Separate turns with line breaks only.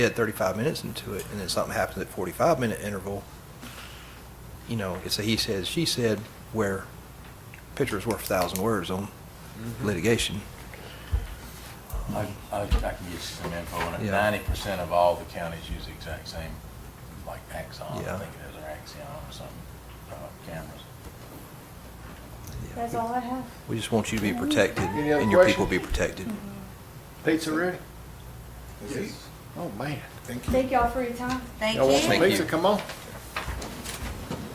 get 35 minutes into it, and then something happens at 45-minute interval, you know, it's a he says, she said, where picture's worth a thousand words on Mm-hmm. litigation.
I, I I can get you some info on it.
Yeah.
Ninety percent of all the counties use the exact same, like Axon,
Yeah.
I think it is, or Axion or something, uh, cameras.
That's all I have.
We just want you to be protected,
Any other
and your people
questions?
be protected.
Pizza ready?
This is-
Oh, man.
Thank you.
Thank y'all for your time.
Thank
Y'all want some
you.
Oh, Thank you.
pizza? Come on.